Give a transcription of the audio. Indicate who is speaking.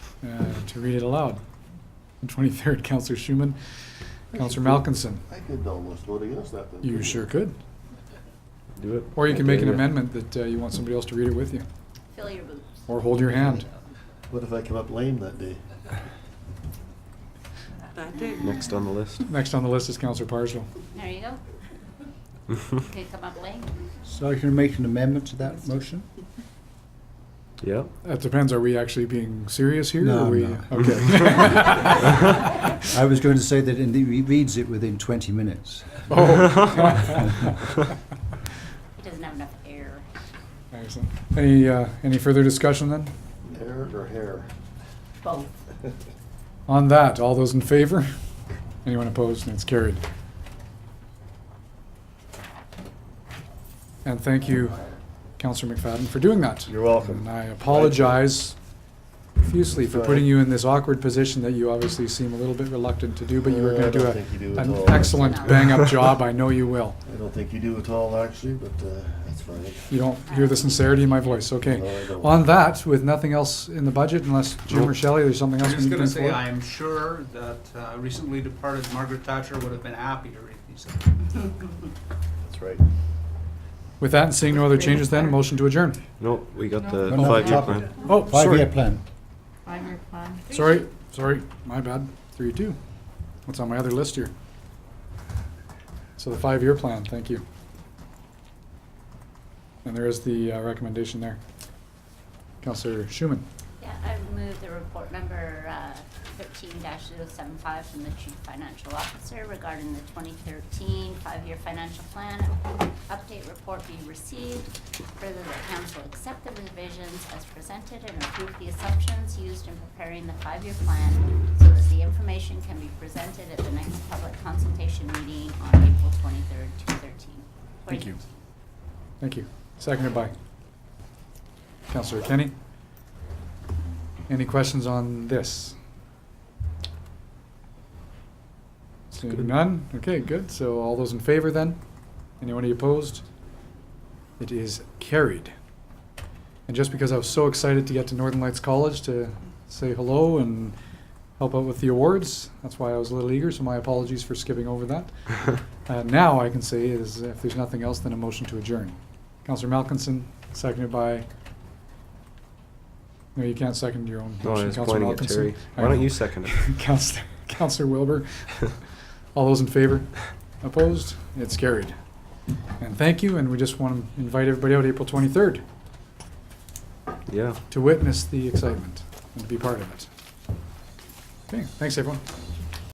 Speaker 1: uh, to read it aloud. The 23rd, Counselor Schumann, Counselor Malkinson.
Speaker 2: I could almost vote against that then.
Speaker 1: You sure could.
Speaker 3: Do it.
Speaker 1: Or you can make an
Speaker 3: Yeah.
Speaker 1: amendment that uh, you want somebody else to read it with you,
Speaker 4: Fill your boots.
Speaker 1: or hold your hand.
Speaker 2: What if I come up lame that day?
Speaker 5: That day.
Speaker 3: Next on the list.
Speaker 1: Next on the list is Counselor Parslow.
Speaker 4: There you go. Okay, come up late.
Speaker 6: So you're gonna make an amendment to that motion?
Speaker 3: Yeah.
Speaker 1: That depends, are we actually being serious here? or
Speaker 6: No,
Speaker 1: are we-
Speaker 6: no.
Speaker 1: Okay.
Speaker 6: I was going to say that in the, he reads it within 20 minutes.
Speaker 1: Oh.
Speaker 4: He doesn't have enough air.
Speaker 1: Excellent. Any, uh, any further discussion then?
Speaker 2: Hair or hair?
Speaker 4: Both.
Speaker 1: On that, all those in favor? Anyone opposed? And it's carried. And thank you, Counselor McFadden, for doing that.
Speaker 2: You're welcome.
Speaker 1: And I apologize profusely for putting you in this awkward position that you obviously seem a little bit reluctant to do, but you were
Speaker 2: Uh, I
Speaker 1: going to do
Speaker 2: don't
Speaker 1: a-
Speaker 2: think you do at
Speaker 1: an
Speaker 2: all.
Speaker 1: excellent bang-up job. I know you will.
Speaker 2: I don't think you do at all, actually, but uh, that's fine.
Speaker 1: You don't hear the sincerity in my voice,
Speaker 2: No,
Speaker 1: okay?
Speaker 2: I don't.
Speaker 1: On that, with nothing else in the budget, unless Jim or
Speaker 3: Nope.
Speaker 1: Shelley, there's something
Speaker 7: I'm
Speaker 1: else we
Speaker 7: just
Speaker 1: need to
Speaker 7: gonna
Speaker 1: bring
Speaker 7: say,
Speaker 1: forward?
Speaker 7: I am sure that uh, recently departed Margaret Thatcher would have been happy to read these.
Speaker 2: That's right.
Speaker 1: With that and seeing no other changes then, a motion to adjourn.
Speaker 3: No, we got the
Speaker 6: No, no,
Speaker 3: five-year
Speaker 6: top
Speaker 3: plan.
Speaker 6: it.
Speaker 1: Oh,
Speaker 6: Five-year
Speaker 1: sorry,
Speaker 6: plan.
Speaker 5: Five-year plan.
Speaker 1: sorry, sorry, my bad, three, two. What's on my other list here? So the five-year plan, thank you. And there is the uh, recommendation there. Counselor Schumann,
Speaker 4: Yeah, I move the report number uh, thirteen 75 from the chief financial officer regarding the 2013 5 five-year financial plan. Update report be received. Further, the council accept the revisions as presented and approve the assumptions used in preparing the five-year plan so that the information can be presented at the next public consultation meeting on April twenty-third, two thirteen.
Speaker 1: Thank you. thank you. Seconded by Counselor Kenny. Any questions on this? Seeing
Speaker 3: Good.
Speaker 1: none, okay, good, so all those in favor then? Anyone opposed? It is carried. And just because I was so excited to get to Northern Lights College to say hello and help out with the awards, that's why I was a little eager, so my apologies for skipping over that. Uh, Now I can say is, if there's nothing else, then a motion to adjourn. Counselor Malkinson, seconded by, no, you can't second your own
Speaker 3: No, I
Speaker 1: motion,
Speaker 3: was
Speaker 1: Counselor
Speaker 3: pointing at
Speaker 1: Malkinson.
Speaker 3: Terry.
Speaker 1: I
Speaker 3: Why don't
Speaker 1: know.
Speaker 3: you second it?
Speaker 1: Counselor, Counselor Wilbur. All those in favor? Opposed? It's carried. And thank you, and we just want to invite everybody out April 23rd
Speaker 3: Yeah.
Speaker 1: to witness the excitement and to be part of it. Okay, thanks, everyone.